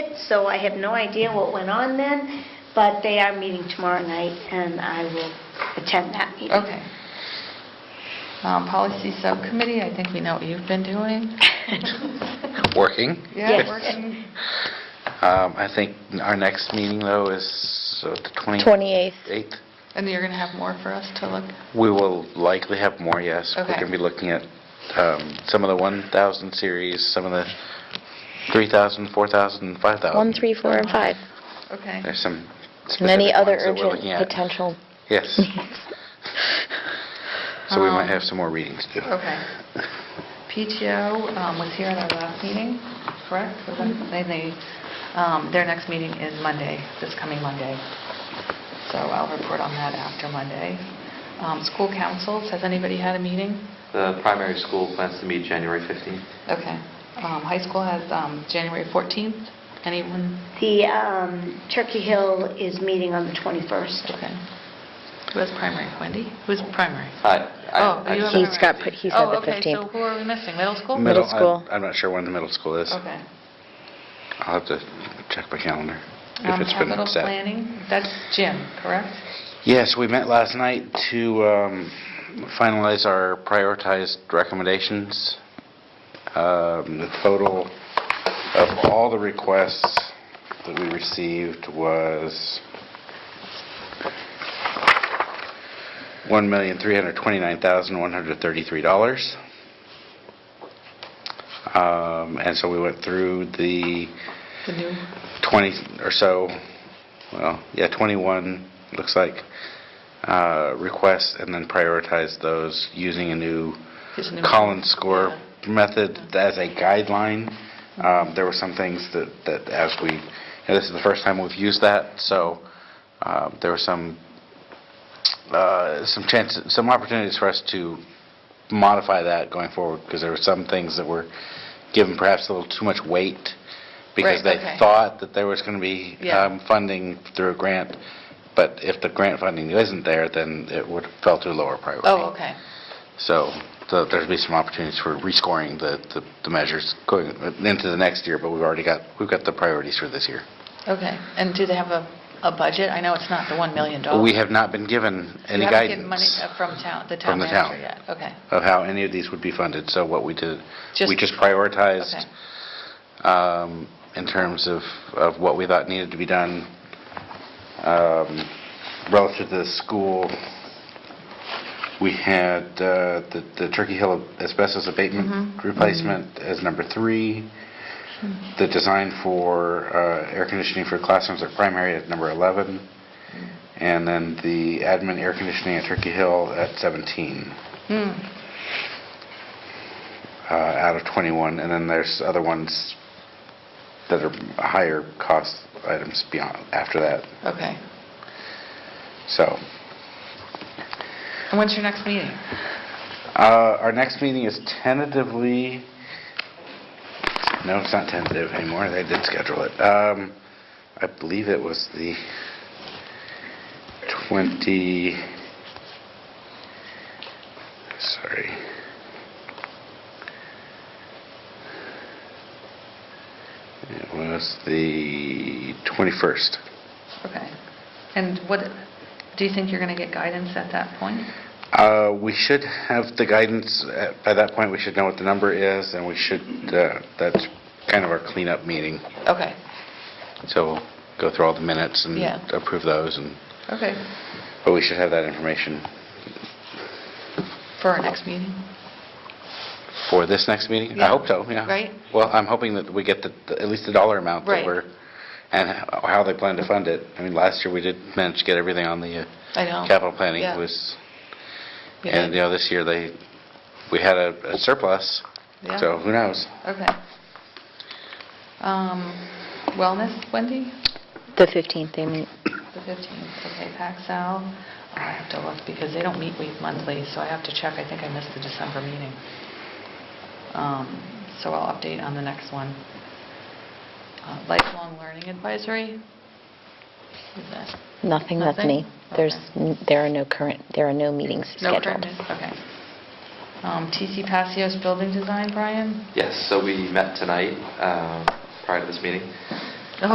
so I have no idea what went on then, but they are meeting tomorrow night, and I will attend that meeting. Okay. Um, Policy Subcommittee, I think we know what you've been doing. Working. Yes. Yeah, working. Um, I think our next meeting, though, is uh, the 28th. 28th. And you're going to have more for us to look? We will likely have more, yes. We're Okay. going to be looking at um, some of the 1,000 series, some of the 3,000, 4,000, and 5,000. 1, 3, 4, and 5. Okay. There's some Many specific other ones that we're urgent looking at. potential. Yes. So we Um, might have some more readings to do. Okay. PTO um, was here at our last meeting, correct? Was that- They, they, um, their next meeting is Monday, this coming Monday. So I'll report on that after Monday. Um, School councils, has anybody had a meeting? The primary school plans to meet January 15th. Okay. Um, High school has um, January 14th. Anyone? The um, Turkey Hill is meeting on the 21st. Okay. Who has primary? Wendy? Who's primary? I- I- Oh, I- you have He's got, put- he said the Oh, okay, so 15th. who are we missing? Middle school? Middle I'm- school. I'm not sure when the middle school is. Okay. I'll have to check my calendar if Um, it's been Capital set. planning, that's Jim, correct? Yes, we met last night to um, finalize our prioritized recommendations. Um, The total of all the requests that we received was $1,329,133. Um, And so we went through the... The new, 20 or so, well, yeah, 21, looks like, uh, requests, and then prioritize those using a new Using a new- Collins score method as a guideline. Um, There were some things that, that as we, and this is the first time we've used that, so um, there were some, uh, some chances, some opportunities for us to modify that going forward, because there were some things that were given perhaps a little too much weight, because Right, they okay. thought thought that there was going to be Yeah. um, funding through a grant, but if the grant funding isn't there, then it would fell to lower priority. oh, okay. So so there'd be some opportunities for rescoring the the the measures going into the next year, but we've already got, we've got the priorities for this year. Okay, and do they have a, a budget? I know it's not the $1 million. We have not been given any You haven't given money guidance uh, from town, the town from the manager town yet? Okay, of how any of these would be funded, so what we did, we Just- just prioritized okay, um, in terms of, of what we thought needed to be done um, relative to the school. We had uh, the the Turkey Hill asbestos Mm-hmm. abatement replacement as number three, the design for uh, air conditioning for classrooms at primary at number 11, Mm. and then the admin air conditioning at Turkey Hill at 17 Hmm. uh, out of 21, and then there's other ones that are higher cost items beyond, after that, okay. so. And when's your next meeting? uh, Our next meeting is tentatively, no, it's not tentative anymore, they did schedule it. Um, I believe it was the 20, sorry. It was the 21st. Okay. And what, do you think you're going to get guidance at that point? Uh, We should have the guidance, uh, by that point, we should know what the number is, and we should, uh, that's kind of our cleanup meeting. Okay, So we'll go through all the minutes and Yeah. approve those, and, okay, but we should have that information for our next meeting? for this next meeting? Yeah. I hope so, yeah. Right? Well, I'm hoping that we get the, the- at least the dollar amount Right. that we're, and ho- how they plan to fund it. I mean, last year, we did manage to get everything on the uh, I know. capital planning Yeah. was, Yeah. and, you know, this year, they, we had a a surplus, Yeah. so who knows? Okay. Um, Wellness, Wendy? The 15th, they meet. The 15th, okay, PacSal. Oh, I have to look, because they don't meet week monthly, so I have to check, I think I missed the December meeting. Um, So I'll update on the next one. Uh, Lifelong Learning Advisory? Is that- Nothing, that's me. Nothing? There's, Okay. n- there are no current, there are no meetings No scheduled. current, okay. Um, TC Passios Building Design, Brian? Yes, so we met tonight um, prior to this meeting,